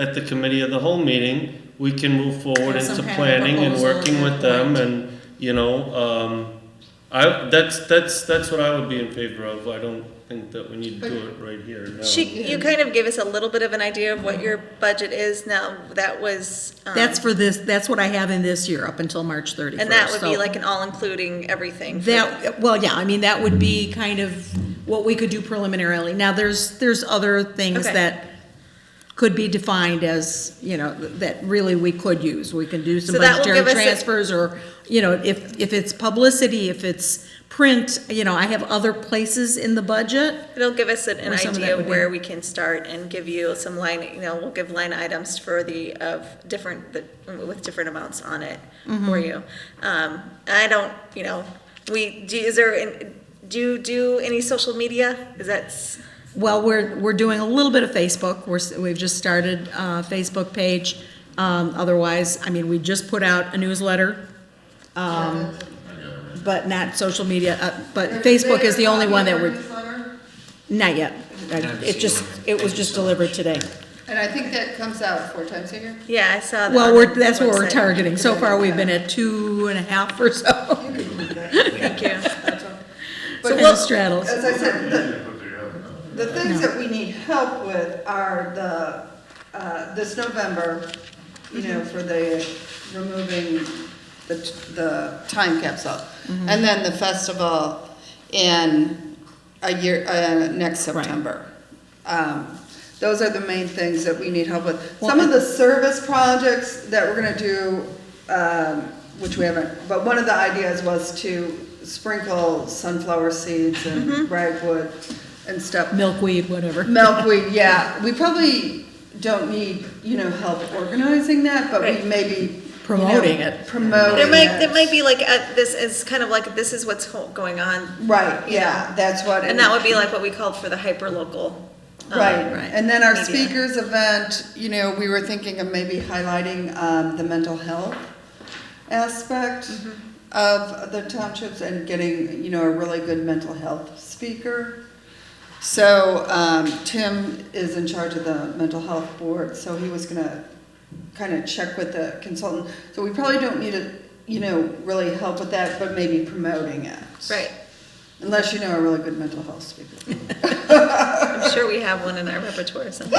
at the committee of the whole meeting, we can move forward Have some into kind of planning and proposal working and- with them right. and, you know, um, I, that's, that's, that's what I would be in favor of. I don't think that we need to do it right here now. She, you kind of gave us a little bit of an idea of what your budget is now. That was. um, That's for this, that's what I have in this year, up until March thirty-first. And that would be like an all-including everything. for the- That, well, yeah, I mean, that would be kind of what we could do preliminarily. Now, there's, there's other things Okay. that could be defined as, you know, that really we could use. We can do some So that will budgetary give us a- transfers or, you know, if, if it's publicity, if it's print, you know, I have other places in the budget. It'll give us an an Or some of that idea would of be- where we can start and give you some line, you know, we'll give line items for the, of different, the- with different amounts on it Mm-hmm. for you. Um, I don't, you know, we, do, is there, an- do you do any social media? Is that, s- Well, we're, we're doing a little bit of Facebook. We're, s- we've just started a Facebook page. Um, otherwise, I mean, we just put out a newsletter. Um, but not social media, uh, but Facebook is the only one that we're, not yet. Uh, It just, it was just delivered today. And I think that comes out four times a year. yeah, I saw that. Well, on we're, the that's what we're website. targeting. So far, we've been at two and a half or so. Thank you. So But it straddles. As I said, the, the things that we need help with are the, uh, this November, you know, for the removing the, t- the time capsule. Mm-hmm. And then the festival in a year, uh, next Right. September. Um, those are the main things that we need help with. Some of the service projects that we're gonna do, um, which we haven't, but one of the ideas was to sprinkle sunflower seeds Mm-hmm. and ragwood and stuff. Milkweed, whatever. Milkweed, yeah, we probably don't need, you know, help organizing that, but we Right. maybe. you know, Promoting it. Promoting There it. might, there might be like, uh, this is kind of like, this is what's ho- going on. Right, yeah, that's what. And that would be like what we called for the hyperlocal. um, Right, right. and then our media. speakers event, you know, we were thinking of maybe highlighting um, the mental health aspect Mm-hmm. of the townships and getting, you know, a really good mental health speaker. So um, Tim is in charge of the mental health board, so he was gonna kind of check with the consultant. So we probably don't need to, you know, really help with that, but maybe promoting it. Right. Unless you know a really good mental health speaker. I'm sure we have one in our repertoire or something.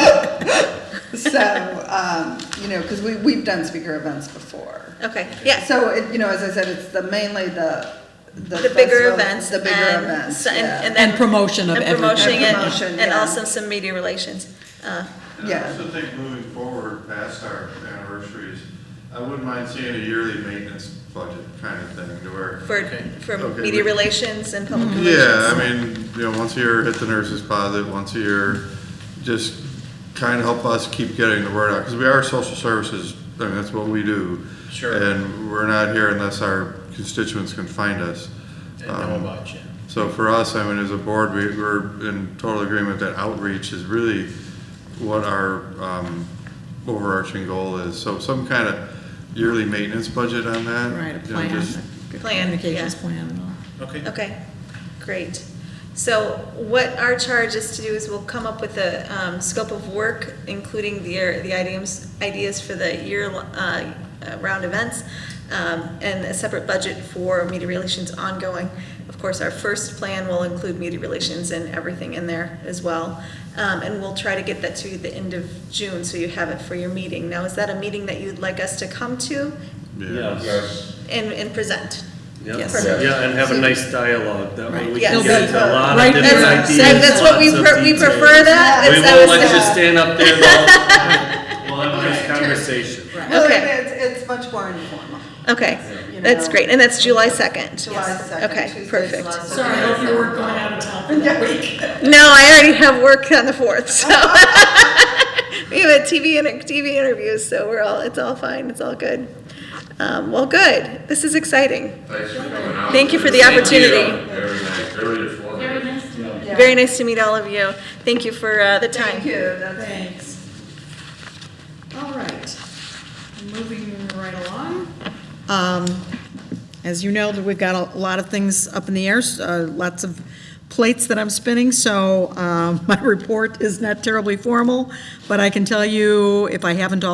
So, um, you know, because we, we've done speaker events before. Okay, yeah. So, it, you know, as I said, it's the mainly the, the. The bigger festival- events. The bigger and events, so- and- yeah. And then. And promotion of and everything. promoting And it, promotion, and yeah. also some media relations. Uh, And Yeah. I also think moving forward past our anniversaries, I wouldn't mind seeing a yearly maintenance budget kind of thing to where. For, for Okay, media we- relations and Mm-hmm. public Yeah, I relations. mean, you know, once a year, hit the nurses posit, once a year, just kind of help us keep getting the word out, because we are social services, I mean, that's what we do. Sure. And we're not here unless our constituents can find us. and know Um, about you. So for us, I mean, as a board, we, we're in total agreement that outreach is really what our, um, overarching goal is. So some kind of yearly maintenance budget on that. Right, a you know, plan, just- a Plan, communications yeah. plan and all. Okay. Okay, great. So what our charge is to do is we'll come up with a um, scope of work, including the, year- the items, ideas for the year, uh, uh, round events, um, and a separate budget for media relations ongoing. Of course, our first plan will include media relations and everything in there as well. Um, And we'll try to get that to you the end of June, so you have it for your meeting. Now, is that a meeting that you'd like us to come to Yes. and, and present? Yeah, Yes. yeah, and have a nice dialogue, that way we can Yes. get to a lot Right. of That's- different That's, ideas. that's what we, lots of pre- we details. prefer that. We It's- I was won't let you like- stand up there the whole time. We'll have a nice conversation. Well, Okay. it's, it's much more informal. Okay, You that's know. great, and that's July second? July 2nd, Okay, Tuesday's perfect. July 2nd. Sorry, hopefully we're going out of town for that week. No, I already have work on the fourth, so. We have a TV and TV interviews, so we're all, it's all fine, it's all good. Um, well, good, this is exciting. Thanks for coming out. Thank you for the opportunity. Very nice, very informative. Very nice to meet you. Very nice to meet all of you. Thank you for, uh, the time. Thank you, that's. Thanks. All right, moving right along. Um, As you know, that we've got a lot of things up in the air, s- uh, lots of plates that I'm spinning, uh, so um, my report is not terribly formal, but I can tell you, if I haven't already.